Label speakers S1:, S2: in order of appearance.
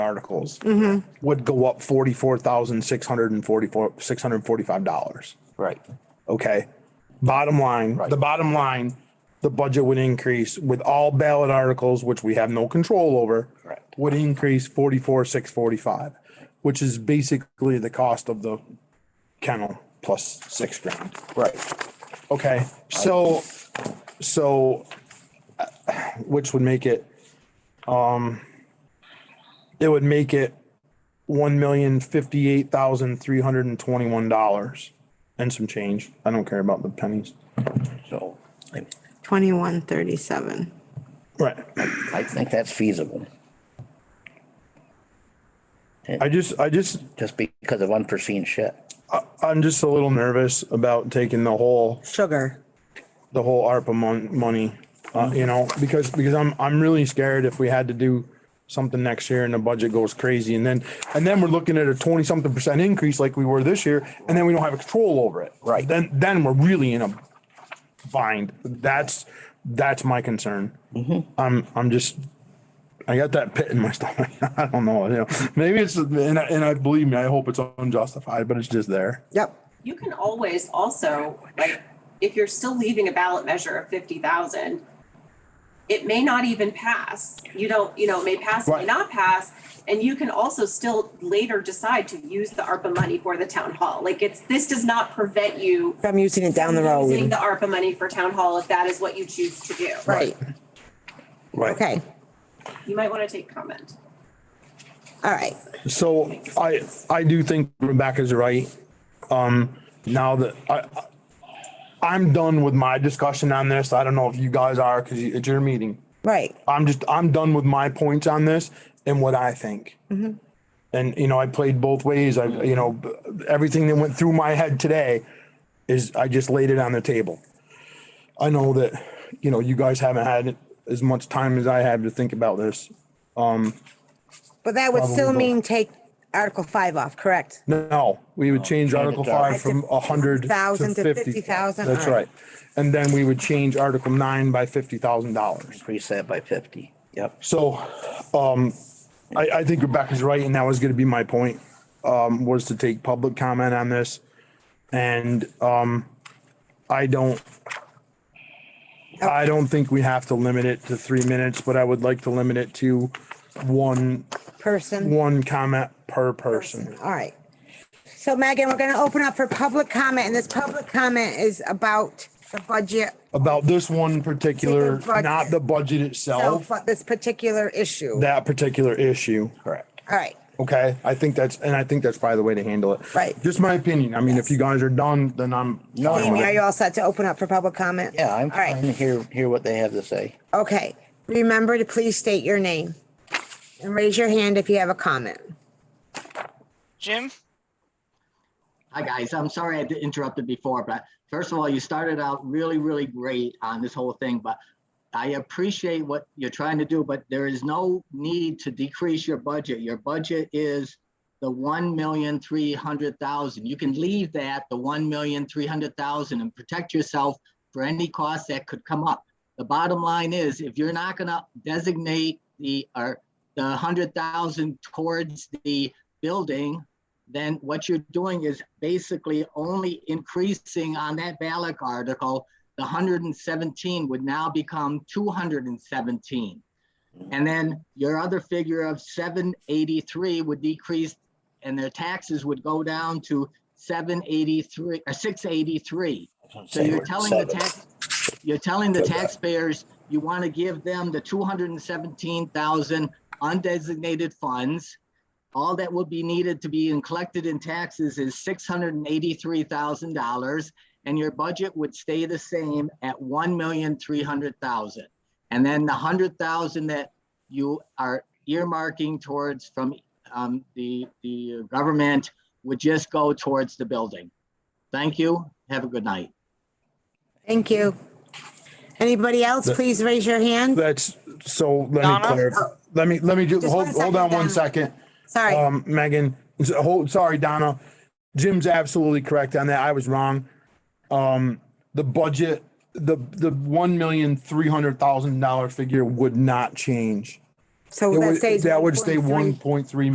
S1: articles
S2: Mm-hmm.
S1: would go up forty-four thousand, six hundred and forty-four, six hundred and forty-five dollars.
S2: Right.
S1: Okay. Bottom line,
S2: Right.
S1: the bottom line, the budget would increase with all ballot articles, which we have no control over.
S2: Correct.
S1: Would increase forty-four, six forty-five, which is basically the cost of the kennel plus six grand.
S2: Right.
S1: Okay, so, so, uh, which would make it, um, it would make it one million fifty-eight thousand three hundred and twenty-one dollars and some change. I don't care about the pennies.
S2: So I,
S3: Twenty-one thirty-seven.
S1: Right.
S2: I think that's feasible,
S1: I just, I just,
S2: just because of unforeseen shit.
S1: I'm just a little nervous about taking the whole,
S4: Sugar.
S1: the whole ARPA mon- money. Uh, you know, because, because I'm, I'm really scared if we had to do something next year and the budget goes crazy and then, and then we're looking at a twenty something percent increase like we were this year, and then we don't have control over it.
S2: Right.
S1: Then, then we're really in a bind. That's, that's my concern. I'm, I'm just, I got that pit in my stomach. I don't know, you know, maybe it's, and I, and I believe me, I hope it's unjustified, but it's just there.
S4: Yep.
S5: You can always also, like, if you're still leaving a ballot measure of fifty thousand, it may not even pass. You don't, you know, it may pass, it may
S1: Right.
S5: not pass. And you can also still later decide to use the ARPA money for the town hall. Like it's, this does not prevent you
S4: I'm using it down the
S5: using
S4: road.
S5: the ARPA money for town hall if that is what you choose to do.
S4: Right.
S1: Right.
S4: Okay.
S5: You might want to take comment.
S4: All right.
S1: So I, I do think Rebecca's right. Um, now that I, I'm done with my discussion on this. I don't know if you guys are, cause it's your meeting.
S4: Right.
S1: I'm just, I'm done with my points on this and what I think. And, you know, I played both ways. I, you know, b- everything that went through my head today is I just laid it on the table. I know that, you know, you guys haven't had as much time as I have to think about this.
S4: But that would still
S1: Probably.
S4: mean take Article five off, correct?
S1: No, we would change Article
S2: down.
S1: five from a hundred to
S4: 1,000 to
S1: fifty.
S4: 50,000,
S1: That's
S4: all
S1: right.
S4: right.
S1: And then we would change Article nine by fifty thousand dollars.
S2: Increase that by fifty. Yep.
S1: So, um, I, I think Rebecca's right, and that was gonna be my point, um, was to take public comment on this. And, um, I don't, I don't think we have to limit it to three minutes, but I would like to limit it to one,
S4: Person.
S1: one comment per person.
S4: All right. So Megan, we're going to open up for public comment and this public comment is about the budget
S1: about this one particular,
S4: Particular
S1: not the budget
S4: itself,
S1: itself,
S4: but this particular issue. All
S1: that particular issue.
S2: Correct.
S4: right.
S1: Okay, I think that's, and I think that's probably the way to handle it.
S4: Right.
S1: Just my opinion. I mean, if you guys are done, then I'm.
S2: No,
S1: fine
S4: Amy,
S1: with
S4: are
S1: it.
S4: you all set to open up for public comment?
S2: Yeah, I'm
S4: All right.
S2: trying to hear, hear what they have to say.
S4: Okay, remember to please state your name and raise your hand if you have a comment.
S6: Jim?
S7: Hi, guys. I'm sorry I interrupted before, but first of all, you started out really, really great on this whole thing, but I appreciate what you're trying to do, but there is no need to decrease your budget. Your budget is the one million three hundred thousand. You can leave that, the one million three hundred thousand and protect yourself for any costs that could come up. The bottom line is, if you're not gonna designate the, or the hundred thousand towards the building, then what you're doing is basically only increasing on that ballot article, the 117 would now become 217. And then your other figure of 783 would decrease and their taxes would go down to uh, 783 or 683. So you're telling the tax, you're telling the taxpayers, you want to give them the 217,000 undesignated funds. All that will be needed to be in- collected in taxes is six hundred and eighty-three thousand dollars, and your budget would stay the same at one million three hundred thousand. And then the hundred thousand that you are earmarking towards from um, the the government would just go towards the building. Thank you. Have a good night.
S4: Thank you. Anybody else, please raise your hand.
S1: That's, so let me
S6: Donna?
S1: clarify, let me, let me do,
S4: Just one
S1: hold, hold
S4: second,
S1: on one
S4: Donna.
S1: second.
S4: Sorry,
S1: Um, Megan, s- hold, sorry, Donna. Jim's absolutely correct on that. I was wrong. Um, the budget, the, the one million, three hundred thousand dollar figure would not change.
S4: So
S1: It
S4: that
S1: would-
S4: stays.
S1: That would stay
S4: 1.3.
S1: one point three